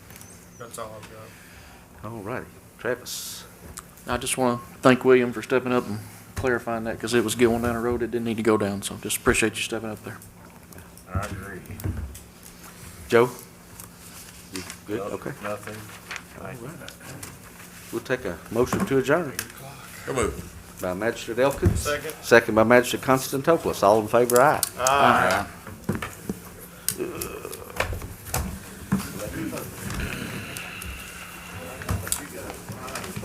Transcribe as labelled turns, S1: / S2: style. S1: That's all I've got.
S2: All righty, Travis.
S3: I just want to thank William for stepping up and clarifying that, because it was going down a road it didn't need to go down, so just appreciate you stepping up there.
S4: I agree.
S2: Joe? You good?
S4: Noth-
S2: Okay.
S4: Nothing.
S2: All
S4: Thank you.
S2: right. We'll take a motion to adjourn
S4: Come on.
S2: by Magistrate Elkins.
S1: Second.
S2: Second by Magistrate Constantopoulos. All in favor, aye.
S1: Aye.